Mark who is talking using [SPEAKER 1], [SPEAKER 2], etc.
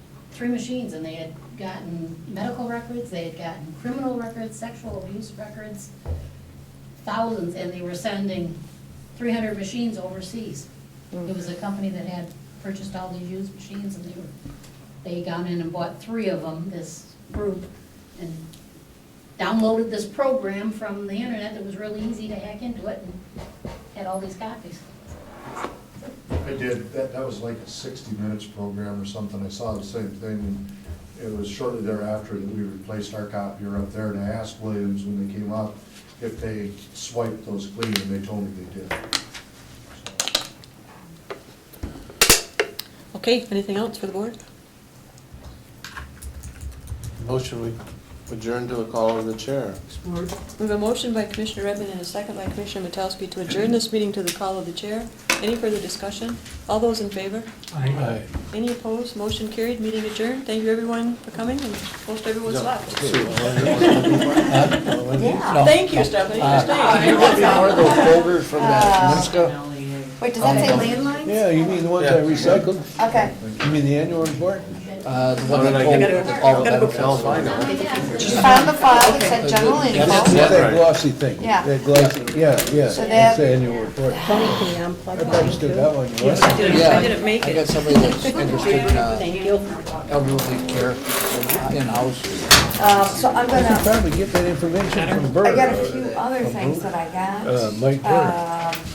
[SPEAKER 1] three machines, and they had gotten medical records, they had gotten criminal records, sexual abuse records, thousands, and they were sending three hundred machines overseas. It was a company that had purchased all these used machines, and they were, they gone in and bought three of them, this group, and downloaded this program from the internet that was really easy to hack into it, and had all these copies.
[SPEAKER 2] I did, that, that was like a sixty minutes program or something, I saw the same thing. It was shortly thereafter that we replaced our copier up there, and I asked Williams when they came up if they swiped those clean, and they told me they did. So,
[SPEAKER 3] Okay, anything else for the board?
[SPEAKER 4] Motion we adjourn to a call of the chair.
[SPEAKER 3] We have a motion by Commissioner Redmond and a second by Commissioner Metowski to adjourn this meeting to the call of the chair. Any further discussion? All those in favor?
[SPEAKER 4] Aye.
[SPEAKER 3] Any opposed? Motion carried, meeting adjourned. Thank you everyone for coming and most everyone's left. Thank you, Stephanie, for
[SPEAKER 4] Can Uh, you
[SPEAKER 3] staying.
[SPEAKER 4] get me one of those folders from that Minska?
[SPEAKER 5] Wait, does that say landlines?
[SPEAKER 6] Yeah, you mean the ones I recycled?
[SPEAKER 5] Okay.
[SPEAKER 6] You mean the annual report?
[SPEAKER 4] Uh, the one that told all the benefits.
[SPEAKER 1] Oh, yeah.
[SPEAKER 5] She found the file that said general
[SPEAKER 6] That's
[SPEAKER 5] info.
[SPEAKER 6] that glossy thing.
[SPEAKER 5] Yeah.
[SPEAKER 6] That glossy, yeah, yeah,
[SPEAKER 5] So
[SPEAKER 6] that's
[SPEAKER 5] that-
[SPEAKER 6] the annual report. I posted that one, you
[SPEAKER 3] Yes, I did.
[SPEAKER 4] Yeah,
[SPEAKER 3] I didn't make
[SPEAKER 4] I got
[SPEAKER 3] it.
[SPEAKER 4] somebody that's interested in uh,
[SPEAKER 3] Thank you.
[SPEAKER 4] elderly care in-house.
[SPEAKER 5] Um, So I'm
[SPEAKER 6] could
[SPEAKER 5] gonna,
[SPEAKER 6] probably get that information from Bert.
[SPEAKER 5] I got a few other things that I
[SPEAKER 6] Uh,
[SPEAKER 5] got.
[SPEAKER 6] Mike Burt.
[SPEAKER 5] Um,